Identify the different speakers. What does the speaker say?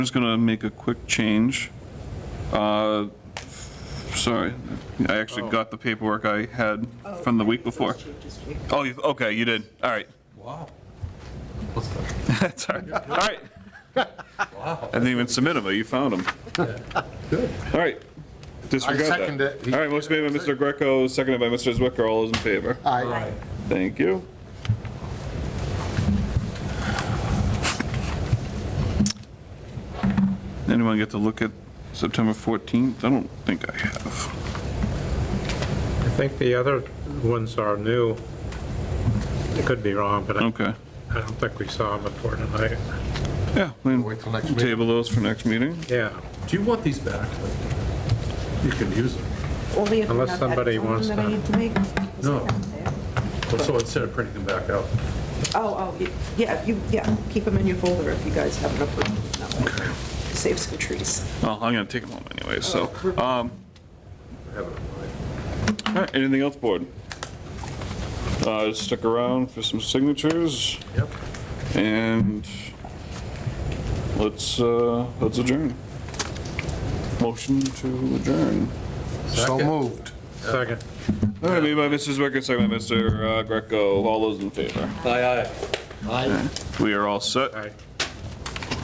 Speaker 1: I'm just gonna make a quick change. Uh, Sorry, I actually got the paperwork I had from the week before. Oh, you, okay, you did, all right.
Speaker 2: Wow. What's that?
Speaker 1: That's all right, all right. I didn't even submit them, but you found them. All right, disregard that.
Speaker 3: second it.
Speaker 1: All right, motion made by Mr. Greco, seconded by Mr. Zwicker, all those in favor?
Speaker 3: Aye.
Speaker 1: Thank you. Anyone get to look at September 14th? I don't think I have.
Speaker 4: I think the other ones are new. I could be wrong, but I
Speaker 1: Okay.
Speaker 4: I don't think we saw them before tonight.
Speaker 1: Yeah, I mean,
Speaker 3: Wait till next meeting.
Speaker 1: table those for next meeting.
Speaker 4: Yeah,
Speaker 2: Do you want these back? You can use them.
Speaker 5: Only if
Speaker 4: Unless
Speaker 5: not that
Speaker 4: somebody
Speaker 5: phone
Speaker 4: wants
Speaker 5: that I
Speaker 4: to-
Speaker 5: need to make.
Speaker 2: No. So instead of printing them back out.
Speaker 5: Oh, oh, y- yeah, you, yeah, keep them in your folder if you guys haven't approved them. that way. Save some trees.
Speaker 1: Well, I'm gonna take them home anyway, so. um,
Speaker 2: I have it in mind.
Speaker 1: All right, anything else, board? Uh, Stick around for some signatures
Speaker 2: Yep.
Speaker 1: and let's, uh, let's adjourn. Motion to adjourn.
Speaker 3: So moved.
Speaker 4: second.
Speaker 1: All right, made by Mrs. Wicker, second by Mr. Greco. All those in favor?
Speaker 2: Aye, aye.
Speaker 3: Aye.
Speaker 1: We are all set.
Speaker 4: Aye.